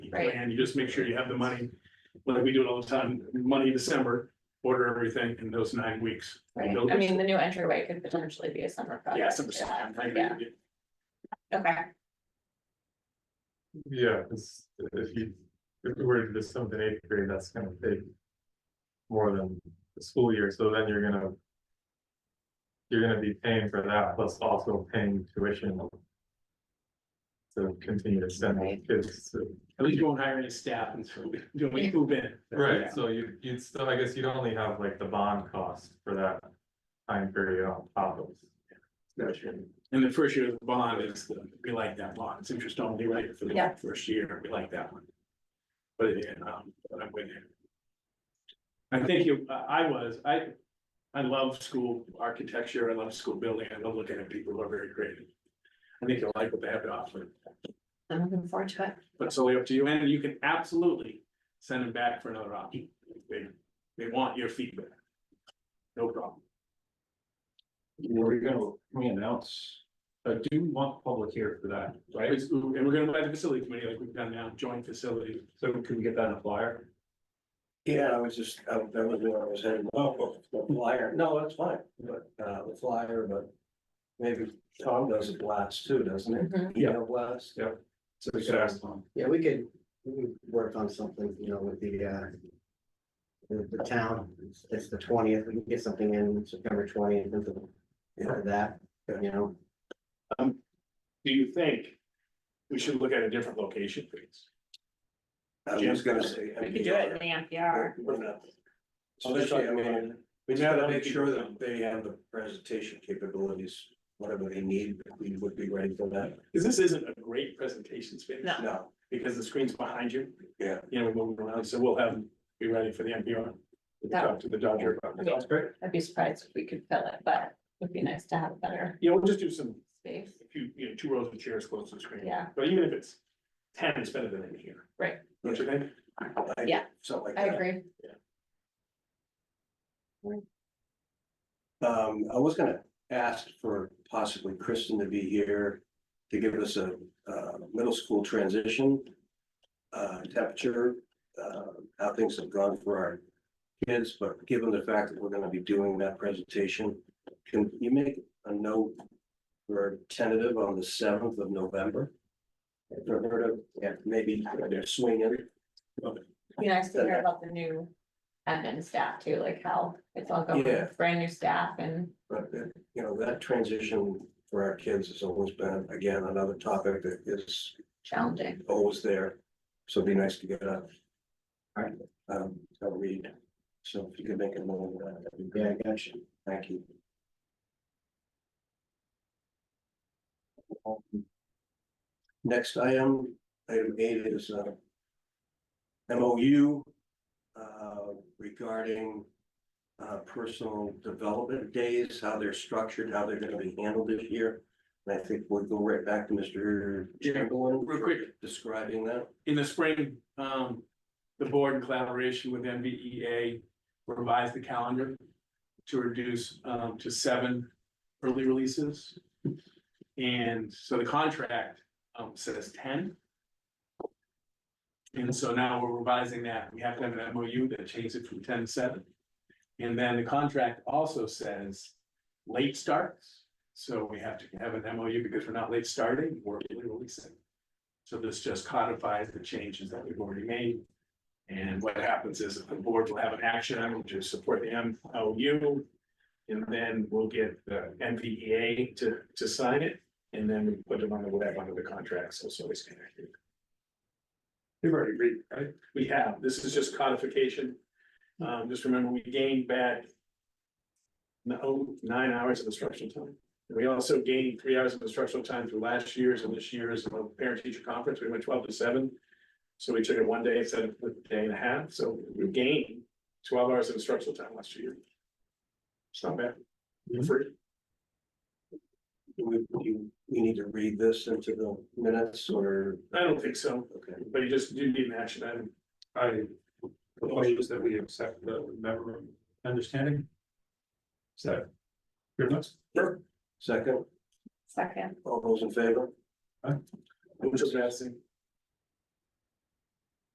Right. and you just make sure you have the money. Like we do it all the time, money December, order everything in those nine weeks. Right, Those- I mean, the new entryway could potentially be a summer Yeah, project. December, I'm thinking Yeah, it- okay, Yeah, because if you, if we were to do something eighth grade, that's gonna take. More than the school year, so then you're gonna. You're gonna be paying for that, plus also paying tuition. To continue to send these kids to, At least you won't hire any staff until we, until we move in. right, so you, you'd still, I guess you'd only have like the bond cost for that. Time period on top of. And the first year of the bond is, the- we like that bond, it's interest only, right, for Yeah. the first year, we like that one. But again, um, but I'm with you. I think you, I I was, I, I love school architecture, I love school building, I love looking at people who are very creative. I think you'll like what they have to offer, I'm looking forward to it. but it's only up to you, and you can absolutely send them back for another option. They, they want your feedback. No problem. We're gonna, we announce, uh, do we want public here for that, right? It's- And we're gonna invite the facility committee like we've done now, joint facility. So can we get that in a flyer? Yeah, I was just, I- that was where I was headed, oh, the flyer, no, that's fine, but, uh, the flyer, but. Maybe Tom does a blast too, doesn't Mhm. he? Yeah. Blast, So we could ask them. Yeah, we could, we could work on something, you know, with the, uh. The, the town, It's- it's the twentieth, we can get something in September twentieth, into that, you know, Do you think we should look at a different location, please? I was gonna say. We could do it in the NPR. We're not- Especially, I mean, we just gotta make sure that they have the presentation capabilities, whatever they need, we would be ready for that, Because this isn't a great presentation space. No. no. Because the screen's behind you. Yeah. You know, we're moving around, so we'll have, be ready for the NPR. We'll Yeah. Talk to the Dodger about it. Yeah. That's great. I'd be surprised if we could fill it, but it would be nice to have a better Yeah, we'll just do some, space. a few, you know, two rows of chairs close to the screen. Yeah. But even if it's ten, it's better than in here. Right. Don't you think? I- Yeah. Something like I that. agree. Um, I was gonna ask for possibly Kristen to be here to give us a, uh, middle school transition. Uh, temperature, uh, how things have gone for our kids, but given the fact that we're gonna be doing that presentation, can you make a note for tentative on the seventh of November? If I've heard of, yeah, maybe swing in. Be nice to hear about the new admin staff too, like how it's all going, Yeah. brand new staff and But, uh, you know, that transition for our kids has always been, again, another topic that is challenging. always there, so it'd be nice to get a. Um, a read, so if you could make a note of that, that'd be yeah, great, I got you. thank you. Next item, item eight is uh. MOU. Uh, regarding. Uh, personal development days, how they're structured, how they're gonna be handled this year. And I think we'll go right back to Mr. Yeah, Chamberlain. real for quick. Describing that. in the spring, um, the board in collaboration with MBEA revised the calendar to reduce, um, to seven early releases. And so the contract, um, says ten. And so now we're revising that. We have to have an MOU that changes it from ten to seven. And then the contract also says late starts. So we have to have an MOU because we're not late starting, we're early releasing. So this just codifies the changes that we've already made. And what happens is the board will have an action item to support the MOU. And then we'll get the MVEA to, to sign it, and then we put them on the web under the contract, so it's always connected. You've already read, right? We have, this is just codification. Um, just remember, we gained back no, nine hours of instructional time. And We also gained three hours of instructional time through last year's and this year's uh, parent teacher conference. We went twelve to seven. So we took it one day instead of a day and a half. So we gained twelve hours of instructional time last year. It's not bad. Free. We, you, we need to read this into the minutes or, I don't think so, okay, but you just do need an action item. I propose that we accept the memorandum of understanding. So. Pretty much. second, Second, all those in favor? Which is interesting.